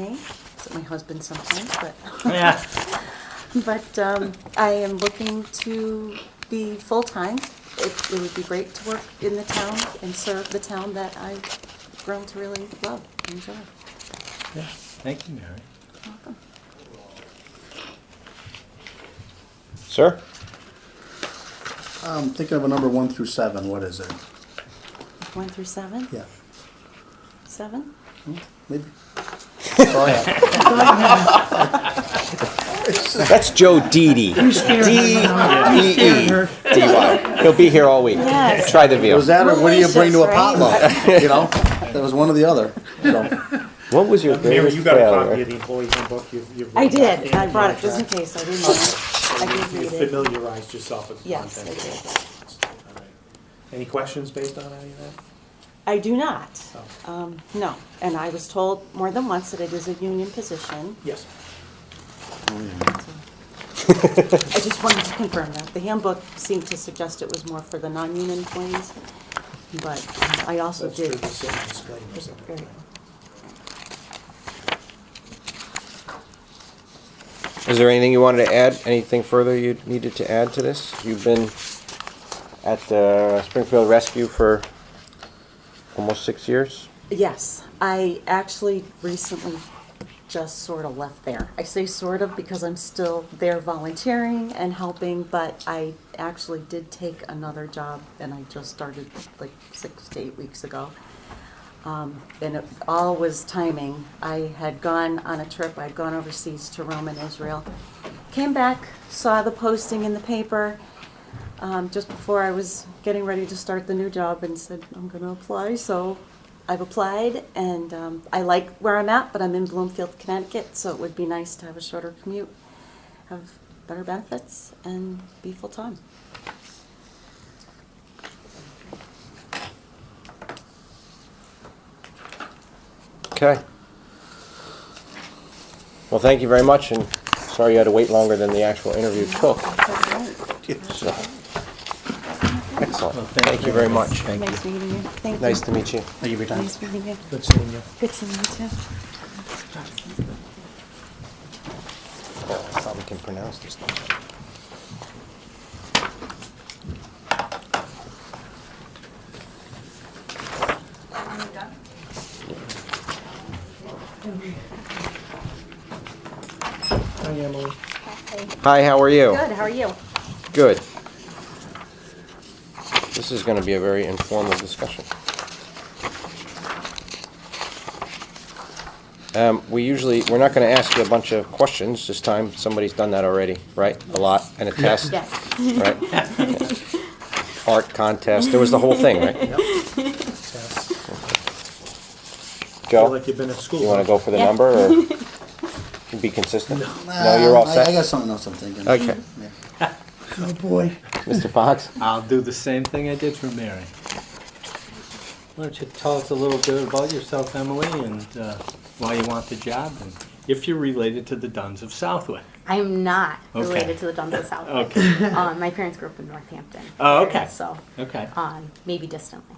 me. It's my husband sometimes, but, Yeah. but um, I am looking to be full-time. It, it would be great to work in the town and serve the town that I've grown to really love and enjoy. Yeah. Thank you, Mary. Welcome. Sir? I'm thinking of a number one through seven, what is it? One through seven? Yeah, Seven? maybe. Oh, Go ahead. That's Joe Didi. E D-E-D-Y. E He'll be here all week. Yes. Try the veal. Was that, or what do you bring to a Delicious, potluck? You know, that was one or the other, so. What was your Mary, greatest you got a copy failure? of the employee handbook? You- you- I did. I you- brought it just in case. I didn't. I did You read it. familiarized yourself with the Yes, content. All right. Any questions based on any of that? I do not. Oh. Um, no. And I was told more than once that it is a union position. Yes. I just wanted to confirm that. The handbook seemed to suggest it was more for the non-union employees, but I also That's true, did. the same disclaimers. and Very- everything. Is there anything you wanted to add? Anything further you needed to add to this? You've been at the Springfield Rescue for almost six years? Yes, I actually recently just sort of left there. I say sort of because I'm still there volunteering and helping, but I actually did take another job and I just started like six to eight weeks ago. Um, and it all was timing. I had gone on a trip, I'd gone overseas to Rome and Israel. Came back, saw the posting in the paper, um, just before I was getting ready to start the new job and said, I'm going to apply. So I've applied and um, I like where I'm at, but I'm in Bloomfield, Connecticut, so it would be nice to have a shorter commute, have better benefits, and be full time. Okay. Well, thank you very much, and sorry you had to wait longer than the actual interview took. So- Excellent. Thank you very much. Thank Nice meeting you. Thank you. Nice to meet you. Thank you for your time. Nice meeting you. Good seeing you. Good seeing you too. Probably can pronounce this. Hi, Emily. Hi, how are you? Good, how are you? Good. This is gonna be a very informal discussion. Um, we usually, we're not gonna ask you a bunch of questions this time, somebody's done that already, right? A lot, and a test, Yes. right? Art contest, there was the whole thing, right? Feel Joe, like you've been at school. you wanna go for the Yeah. number, or be consistent? No, you're all Uh, I- I set? got something else I'm thinking. Okay, Yeah. Oh, boy. Mr. Fox? I'll do the same thing I did for Mary. Why don't you tell us a little bit about yourself, Emily, and uh, why you want the job, and if you're related to the Duns of Southwick. I'm not Okay. related to the Duns of South. Okay. Um, my parents grew up in Northampton. Oh, okay. So, Okay. um, maybe distantly.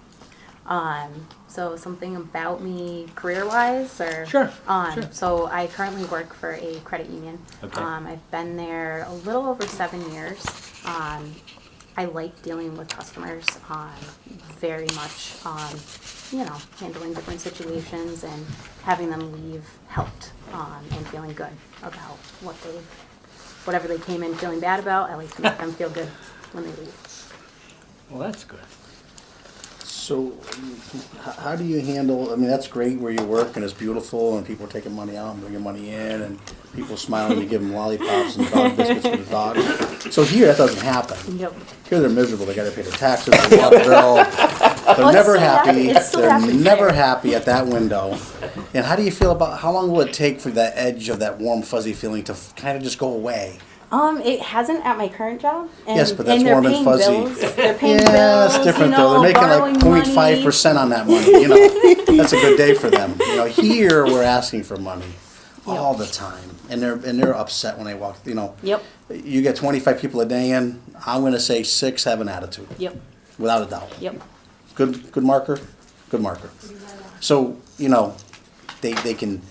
Um, so something about me career-wise, or Sure, Um, sure. So I currently work for a credit union. Okay. Um, I've been there a little over seven years. Um, I like dealing with customers um, very much. Um, you know, handling different situations and having them leave helped um, and feeling good about what they, whatever they came in feeling bad about. I like to make them feel good when they leave. Well, that's good. So, h- how do you handle, I mean, that's great where you work and it's beautiful and people are taking money out and bringing money in and people smiling, you give them lollipops and dog biscuits for the dogs. So here, that doesn't happen. Yep. Here they're miserable. They got to pay their taxes, their water bill. They're it's never still hap- happy. it still They're happens never there. happy at that window. And how do you feel about how long will it take for that edge of that warm fuzzy feeling to kind of just go away? Um, it hasn't at my current job. And, Yes, but that's and they're warm and paying fuzzy. Bills. They're paying Yeah, bills. that's different you though. know, They're making borrowing like 0.5 money. percent on that money. You know, that's a good day for them. You know, here we're asking for money all the time, and they're and they're upset when they walk. You know, Yep. you get 25 people a day in. I'm going to say six have an attitude, Yep. without a doubt. Yep. Good, good marker, good marker. So you know, they they can